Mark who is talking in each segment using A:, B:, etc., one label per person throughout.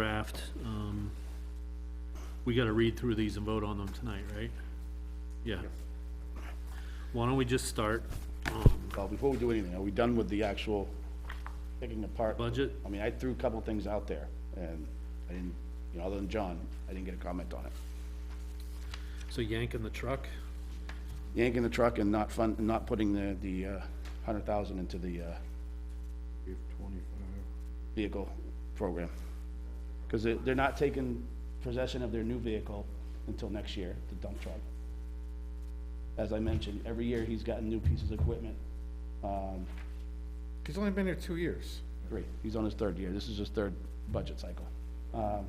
A: draft, um, we gotta read through these and vote on them tonight, right? Yeah. Why don't we just start, um,
B: Well, before we do anything, are we done with the actual picking apart?
A: budget?
B: I mean, I threw a couple things out there, and I didn't, you know, other than John, I didn't get a comment on it.
A: So yanking the truck?
B: Yanking the truck and not fund, not putting the, the, uh, hundred thousand into the, uh, vehicle program. Cause they, they're not taking possession of their new vehicle until next year, the dump truck. As I mentioned, every year he's gotten new pieces of equipment, um,
C: He's only been here two years.
B: three. He's on his third year. This is his third budget cycle. Um,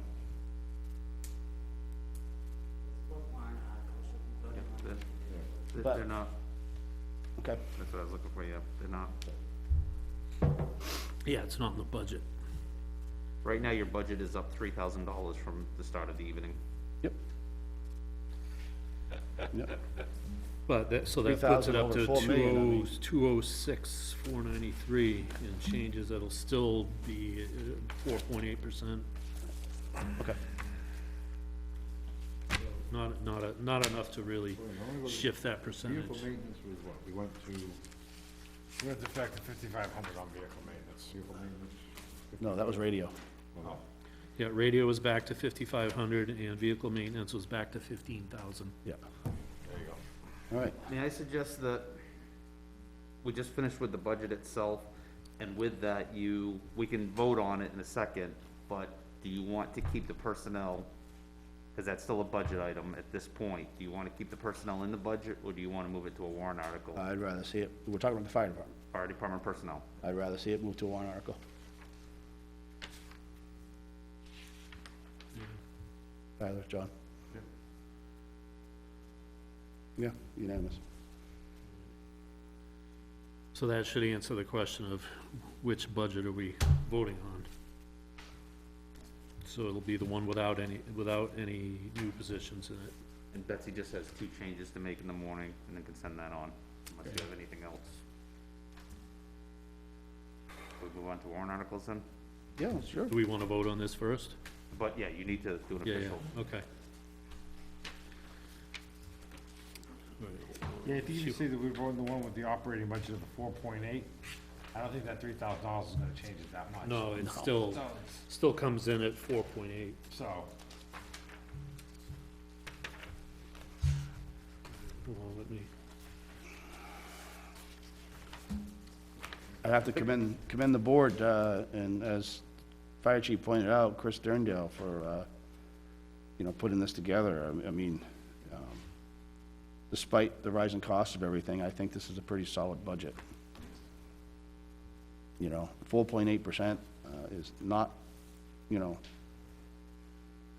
D: They're- They're
B: But-
D: they're not,
B: okay,
D: that's what I was looking for, yeah, they're not.
A: Yeah, it's not in the budget.
D: Right now, your budget is up three thousand dollars from the start of the evening.
B: yep. Yep,
A: But that, so that puts it
B: 3,000
A: up
B: over
A: to
B: 4
A: two
B: million, I mean.
A: oh, two oh six, four ninety-three, and changes, that'll still be uh, four point eight percent.
B: okay.
A: Not, not, a- not enough to really shift that
C: Vehicle
A: percentage.
C: maintenance was what, we went to, we went to factor fifty-five hundred on vehicle maintenance, Oh, vehicle maintenance.
B: No, that was radio.
C: well,
A: Yeah, radio was back to fifty-five hundred, and vehicle maintenance was back to fifteen thousand.
B: Yeah.
C: There you go.
B: All right,
D: May I suggest that we just finish with the budget itself, and with that, you, we can vote on it in a second, but do you want to keep the personnel? Because that's still a budget item at this point. Do you want to keep the personnel in the budget, or do you want to move it to a warrant article?
B: I'd rather see it, we're talking about the fire department.
D: Fire department personnel.
B: I'd rather see it move to a warrant article. Tyler, John? Yeah, unanimous.
A: So that should answer the question of which budget are we voting on? So it'll be the one without any, without any new positions in it.
D: And Betsy just has two changes to make in the morning, and then can send that on, unless you have anything else. We move on to warrant articles then?
B: Yeah, sure.
A: Do we want to vote on this first?
D: But yeah, you need to do an
A: Yeah,
D: official.
A: yeah, okay.
C: Yeah, I think you see that we voted the one with the operating budget of the four point eight. I don't think that three thousand dollars is gonna change it that much.
A: No, it still,
C: So, it's-
A: still comes in at four point eight.
C: so,
A: Hold on, let me,
B: I have to commend, commend the board, uh, and as Fire Chief pointed out, Chris Sterndale for, uh, you know, putting this together. I- I mean, um, despite the rising cost of everything, I think this is a pretty solid budget. You know, four point eight percent uh, is not, you know,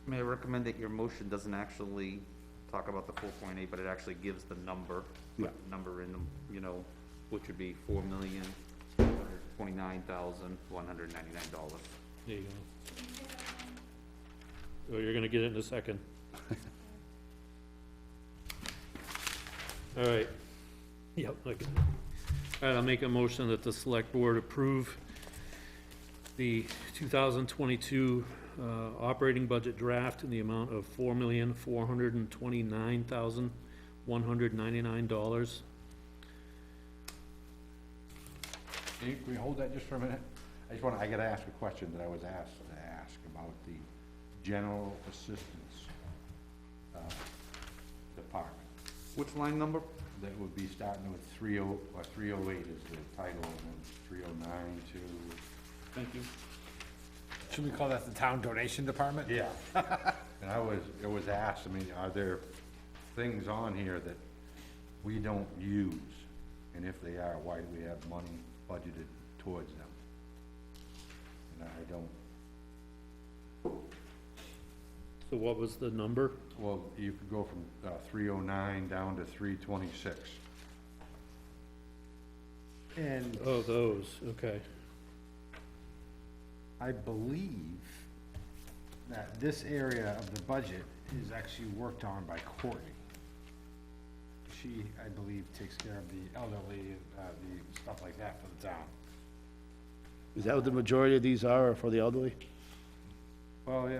D: May I recommend that your motion doesn't actually talk about the four point eight, but it actually gives the number,
B: Yeah.
D: put the number in, the you know, which would be four million, two hundred twenty-nine thousand, one hundred ninety-nine dollars.
A: there you go. Oh, you're gonna get it in a second. All right. Yep, I got it. All right, I'll make a motion that the select board approve the two thousand twenty-two, uh, operating budget draft in the amount of four million, four hundred and twenty-nine thousand, one hundred ninety-nine dollars.
E: Can you- can we hold that just for a minute? I just wanna, I gotta ask a question that I was asked, to ask about the general assistance, uh, department.
D: Which line number?
E: That would be starting with three oh, or three oh eight is the title, and then three oh nine to,
D: Thank you.
C: should we call that the town donation department?
E: yeah. And I was, it was asked, I mean, are there things on here that we don't use? And if they are, why do we have money budgeted towards them? And I don't,
A: So what was the number?
E: Well, you could go from three oh nine down to three twenty-six.
C: And
A: Oh, those, okay.
C: I believe that this area of the budget is actually worked on by Courtney. She, I believe, takes care of the elderly and, uh, the stuff like that for the town.
B: is that what the majority of these are, are for the elderly?
E: Well, yeah,